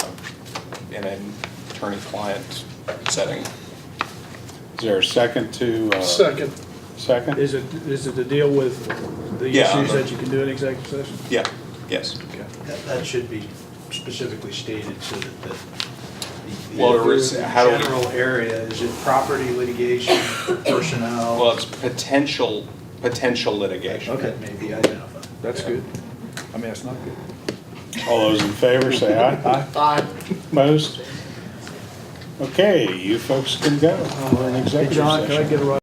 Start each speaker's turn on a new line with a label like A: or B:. A: in an attorney-client setting.
B: Is there a second to? uh,
C: Second.
B: Second?
D: Is it, is it to deal with the
A: Yeah.
D: issues that you can do in executive session?
A: Yeah, yes.
E: That, that should be specifically stated so that the. the-
A: Well, there is-
E: the
A: how do we-
E: General area, is it property litigation, personnel?
A: Well, it's potential, potential litigation.
E: Okay, maybe identified.
D: That's good.
C: I mean, that's not good.
B: All those in favor, say aye.
F: Aye.
B: Most? Okay, you folks can go. We're in
D: Hey,
B: executive
D: John,
B: session.
D: can I get a right